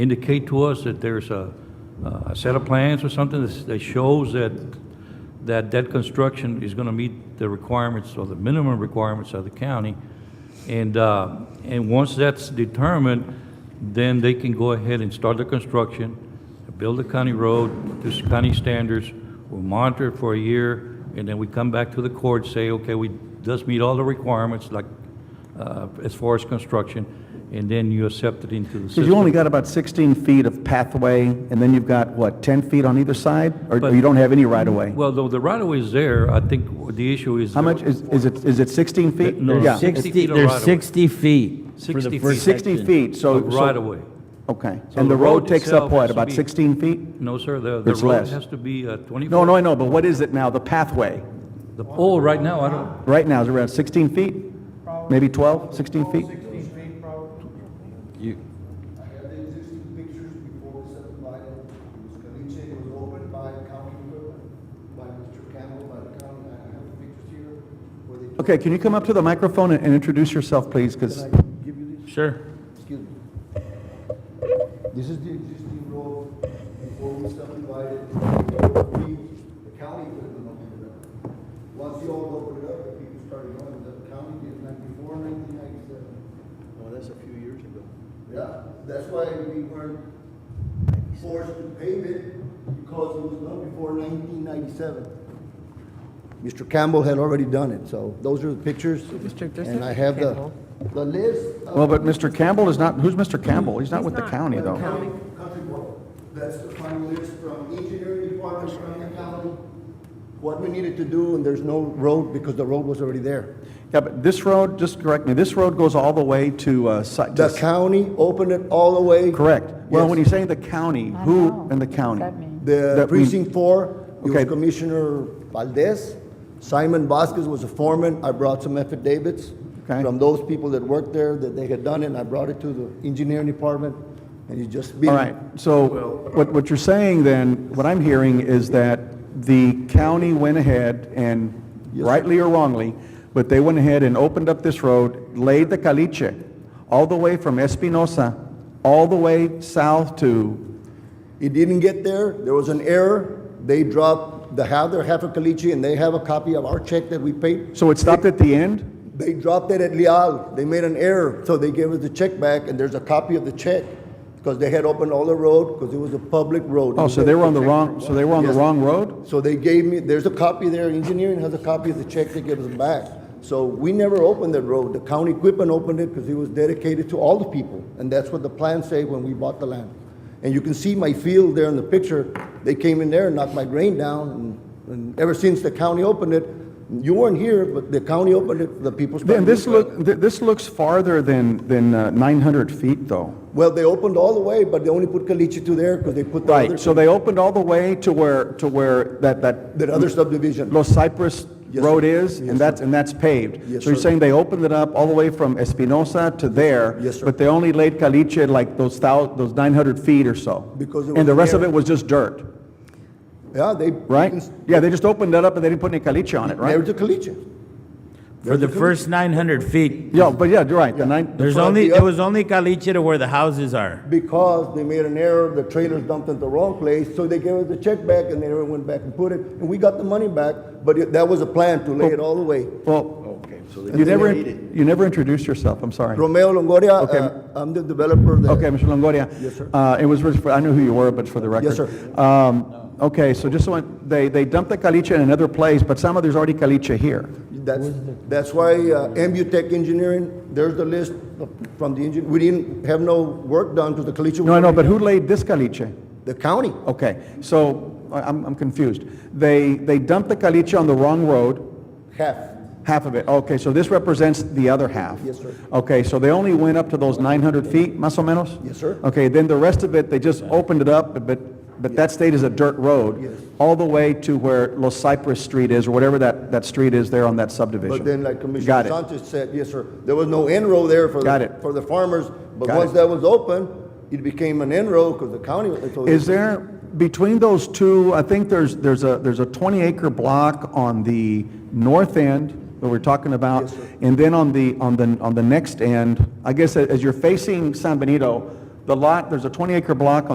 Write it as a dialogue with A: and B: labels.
A: indicate to us that there's a, a set of plans or something that's- that shows that, that that construction is gonna meet the requirements or the minimum requirements of the county. And, uh, and once that's determined, then they can go ahead and start the construction, build the county road to county standards, we'll monitor it for a year, and then we come back to the court, say, okay, we, does meet all the requirements, like, uh, as far as construction, and then you accept it into the system.
B: Because you only got about 16 feet of pathway, and then you've got, what, 10 feet on either side? Or- Or
A: But-
B: you don't have any right-of-way?
A: Well, though the right-of-way is there, I think the issue is.
B: How much, is is it, is it 16 feet?
A: No,
B: Yeah,
A: six-
C: 60
A: feet of
C: There's
A: right-of-way.
C: 60 feet for
A: 60
C: the
A: feet.
C: first
B: 60
C: section.
B: feet, so...
A: Of
B: so-
A: right-of-way.
B: Okay.
A: So
B: And the road takes up,
A: itself has
B: what,
A: to
B: about
A: be-
B: 16 feet?
A: No, sir, the, the
B: It's
A: road
B: less.
A: has to be uh, 24.
B: No, no, I know, but what is it now, the pathway?
A: The- Oh, right now, I don't,
B: Right now, is it around 16 feet? Maybe 12, 16 feet?
D: You,
E: I have the existing pictures before we subdivided, it was Caliche, it was opened by county equipment, by Mr. Campbell, by the county, I have the pictures here, where they took.
B: Okay, can you come up to the microphone and and introduce yourself, please? Because,
E: Can I give you this?
C: Sure.
E: Excuse me. This is the existing road before we subdivided, we, the county equipment opened it up. Once you all opened it up, the people started going, the county did that before nineteen ninety-seven.
D: well, Oh, that's a few years ago.
E: Yeah, that's why we weren't forced to pave it, because it was done before nineteen ninety-seven. Mr. Campbell had already done it, so those are the pictures.
F: Mr. Joseph
E: And I have the,
F: Campbell.
E: the list. of-
B: well, but Mr. Campbell is not, who's Mr. Campbell? He's not
F: He's
B: with the
F: not
B: county,
F: with the
B: though.
F: county.
E: Country Board. That's the final list from engineering department from the county. What we needed to do, and there's no road, because the road was already there.
B: Yeah, but this road, just correct me, this road goes all the way to... uh, Si- to
E: The county opened it all the way.
B: Correct. Well,
E: Yes.
B: when you're saying the county,
F: I
B: who
F: know.
B: in the
F: What does
B: county?
F: that mean?
E: The
B: That we-
E: precinct four, it was
B: Okay.
E: Commissioner Valdez. Simon Vasquez was a foreman. I brought some affidavits
B: Okay.
E: from those people that worked there, that they had done it, and I brought it to the engineering department, and you just beat
B: All
E: it.
B: right, so what, what you're saying then, what I'm hearing is that the county went ahead and,
E: Yes, sir.
B: rightly or wrongly, but they went ahead and opened up this road, laid the caliche, all the way from Espinosa, all the way south to,
E: It didn't get there. There was an error. They dropped, they have their half a caliche, and they have a copy of our check that we paid.
B: so it stopped at the end?
E: They dropped it at Leal. They made an error, so they gave us the check back, and there's a copy of the check, because they had opened all the road, because it was a public road.
B: Oh, so they were on the wrong, so they were on the
E: Yes.
B: wrong road?
E: So they gave me, there's a copy there, engineering has a copy of the check they gave us back. So we never opened that road. The county equipment opened it because it was dedicated to all the people. And that's what the plans say when we bought the land. And you can see my field there in the picture. They came in there and knocked my grain down. and- And ever since the county opened it, you weren't here, but the county opened it, the people started.
B: Then this look, th- this looks farther than, than uh, 900 feet, though.
E: Well, they opened all the way, but they only put Caliche to there because they put the other,
B: Right, so they opened all the way to where, to where that, that...
E: that other subdivision.
B: Los Cypress
E: Yes,
B: Road
E: sir.
B: is,
E: Yes,
B: and that's, and that's paved.
E: Yes,
B: So you're
E: sir.
B: saying they opened it up all the way from Espinosa to there?
E: Yes, sir.
B: But they only laid caliche like those thou, those 900 feet or so?
E: Because it
B: And the
E: was
B: rest of
E: bare.
B: it was just dirt,
E: Yeah, they.
B: right? Yeah, they just opened that up and they didn't put any caliche on it,
E: Never
B: right?
E: to Caliche.
C: For the first 900 feet,
B: Yeah, but yeah, you're right, the nine,
C: there's
E: front,
C: only,
E: the
C: there
E: up-
C: was only caliche to where the houses are.
E: because they made an error, the trailers dumped at the wrong place, so they gave us the check back, and they never went back and put it, and we got the money back, but it- that was a plan to lay it all the way.
B: well,
D: Okay, so
B: you never, you never introduced yourself, I'm sorry.
E: Romeo Longoria,
B: Okay.
E: uh, I'm the developer that.
B: Okay, Mr. Longoria.
E: Yes, sir.
B: Uh, it was, really for- I knew who you were, but it's for the record.
E: Yes,
B: sir. Um, okay, so just so, I- they, they dumped the caliche in another place, but some of there's already caliche here.
E: That's, that's why uh, Ambutech Engineering, there's the list of- from the engine, we didn't have no work done to the Caliche.
B: No, I know, but who laid this caliche?
E: The county.
B: Okay, so I- I'm, I'm confused. They, they dumped the caliche on the wrong road,
E: Half.
B: half of it. Okay, so this represents the other half?
E: Yes, sir.
B: Okay, so they only went up to those 900 feet, más o menos?
E: Yes, sir.
B: Okay, then the rest of it, they just opened it up, but- but, but that state is a dirt road?
E: Yes.
B: All the way to where Los Cypress Street is, or whatever that, that street is there on that subdivision?
E: But then, like
B: Got
E: Commissioner
B: it.
E: Sanchez said, yes, sir, there was no enroll there for,
B: Got
E: the
B: it.
E: for the farmers, but
B: Got
E: once
B: it.
E: that was open, it became an enroll because the county. so
B: Is there, between those two, I think there's, there's a, there's a 20-acre block on the north end that we're talking about?
E: Yes, sir.
B: And then on the, on the, on the next end, I guess a- as you're facing San Benito, the the lot, there's a 20-acre block on